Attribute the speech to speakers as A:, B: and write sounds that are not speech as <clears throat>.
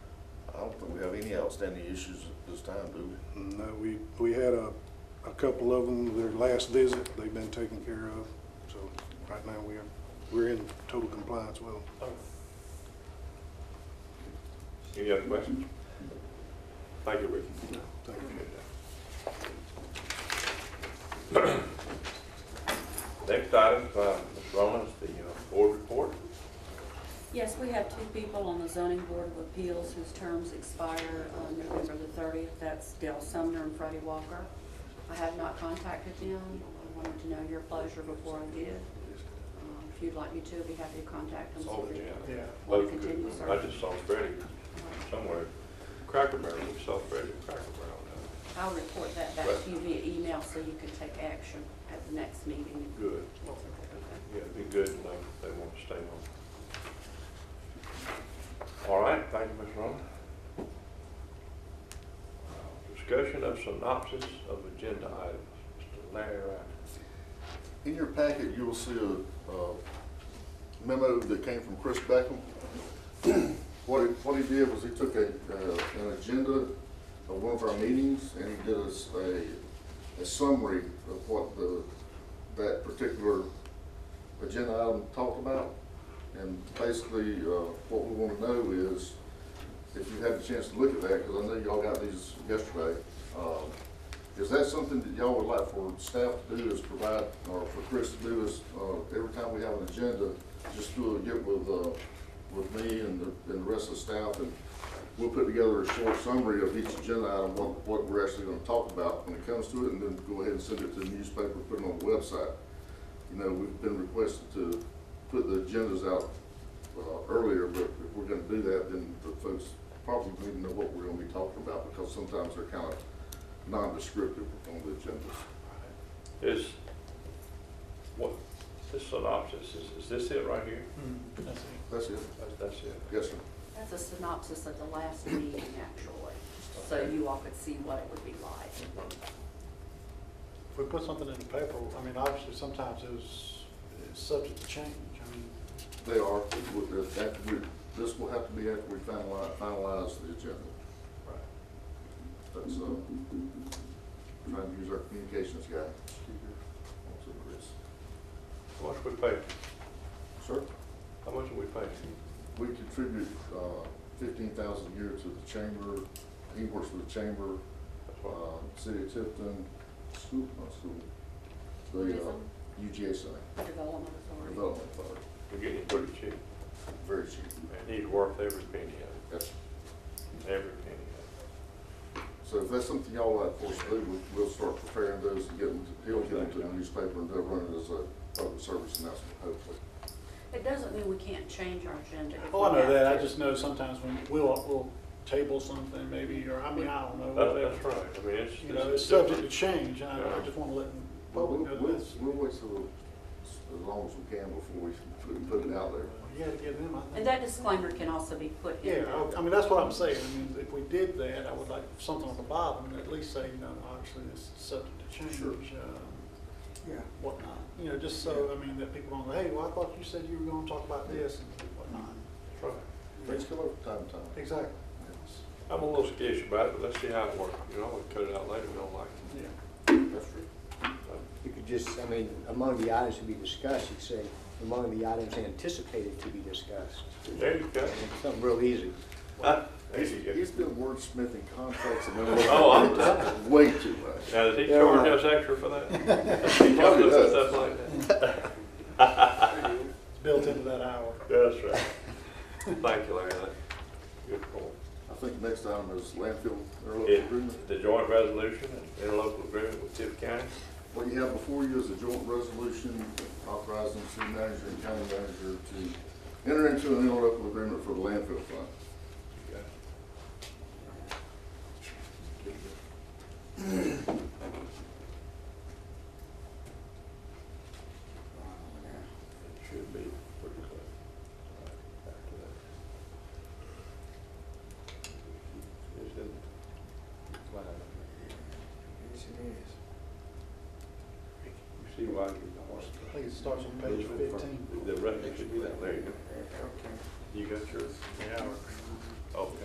A: don't think we have any outstanding issues at this time, do we?
B: No, we, we had a, a couple of them, their last visit, they've been taken care of. So right now, we are, we're in total compliance with them.
C: Any other questions? Thank you, Ricky.
B: Thank you.
C: <coughs> Next item, uh, Ms. Rowland, is the uh, board report.
D: Yes, we have two people on the zoning board of appeals whose terms expire on November the thirtieth. That's Dale Sumner and Freddie Walker. I have not contacted them. I wanted to know your pleasure before I did. Um, If you'd like me to, I'd be happy to contact them.
C: Oh, yeah.
E: Yeah.
D: Want to continue, sir?
C: I just saw Freddie somewhere, Cracker Barrel, we saw Freddie at Cracker Barrel. now.
D: I'll report that back to you via email so you can take action at the next meeting.
C: Good,
D: Okay.
C: yeah, it'd be good to know if they want to stay on. All right, thank you, Ms. Rowland. Uh, Discussion of synopsis of agenda items, Mr. Larry Wright.
A: In your packet, you will see a uh, memo that came from Chris Beckham. <clears throat> What he, what he did was he took a, uh, an agenda of one of our meetings and he did us a, a summary of what the, that particular agenda item talked about. And basically, uh, what we want to know is, if you had the chance to look at that, because I know y'all got these yesterday, um, is that something that y'all would like for staff to do is provide, or for Chris to do is, uh, every time we have an agenda, just do it, get with, uh, with me and the, and the rest of the staff, and we'll put together a short summary of each agenda item, what, what we're actually gonna talk about when it comes to it, and then go ahead and send it to the newspaper, put it on the website. You know, we've been requested to put the agendas out, uh, earlier, but if we're gonna do that, then the folks probably need to know what we're gonna be talking about, because sometimes they're kind of non-descriptive on the agendas.
C: Is, what, this synopsis, is, is this it right here?
E: That's it.
A: That's it.
C: That's, that's it.
A: Yes, sir.
D: That's a synopsis of the last meeting, actually, so you all could see what it would be like.
E: If we put something in the paper, I mean, obviously, sometimes it's, it's subject to change. I mean,
A: They are, with the- after we- this will have to be after we finalize, finalize the agenda. That's, uh, trying to use our communications guy. What's it, Chris?
C: How much we pay?
A: Sir,
C: How much do we pay?
A: we contribute, uh, fifteen thousand a year to the chamber. He works for the chamber,
C: That's what-
A: uh, city of Tifton, school, not school. The, uh,
D: Tourism.
A: UGSI,
D: Development Authority.
A: Development Authority,
C: We're getting it pretty cheap.
A: very cheap.
C: And he's worth every penny of
A: Yes, sir.
C: it, every penny of
A: So if that's something y'all like for us to do, we'll- we'll start preparing those and get them, to- he'll get them to the newspaper and they'll run it as a public service announcement, hopefully.
D: It doesn't mean we can't change our agenda. if
E: Oh, I
D: we
E: know
D: have
E: that, I
D: to.
E: just know sometimes when we'll, we'll table something maybe, or I mean, I don't
C: it.
E: know,
C: That-
E: whatever.
C: That's right, I mean, it's.
E: You know, it's subject to change, and I I just want to let the
A: But we'll,
E: public know
A: we'll,
E: this.
A: we'll wait till, as long as we can before we put- put it out there.
E: You gotta give them, I
D: And
E: think.
D: that disclaimer can also be put in.
E: Yeah,
D: there.
E: I- I mean, that's what I'm saying, I mean, if we did that, I would like something on the bottom, at least say, you know, obviously, it's subject to change, um, whatnot. You know, just so, I mean, that people don't, go, hey, well, I thought you said you were gonna talk about this and whatnot.
C: That's right.
A: Things come up from time to time.
E: Exactly.
C: I'm a little skittish about it, but let's see how it works, you know, we'll cut it out later, we don't like
E: Yeah.
A: That's true.
C: it.
F: You could just, I mean, among the items to be discussed, you could say, among the items anticipated to be discussed.
C: There you go.
F: Something real easy.
C: Ah, There
A: He's,
C: you go.
A: he's been wordsmithing contracts <laughs> and
C: Oh, I'm-
A: memorandums way too much.
C: Now, does he
F: Yeah,
C: charge
F: right.
C: us extra for that? Does he charge
A: Probably
C: us for
A: does.
C: stuff like that?
E: It's built into that hour.
C: That's right. Thank you, Larry, That's good point.
A: I think next item is landfill interlocal agreement.
C: It- The joint resolution and interlocal agreement with Tiff County,
A: What you have before you is a joint resolution authorizing the city manager and county manager to enter into an interlocal agreement for the landfill fund.
C: It should be pretty close. Back to that. Is it- You see why you
E: I think it starts on page fifteen.
C: The record should be that, there you go. You got yours?
E: Yeah.
C: Okay.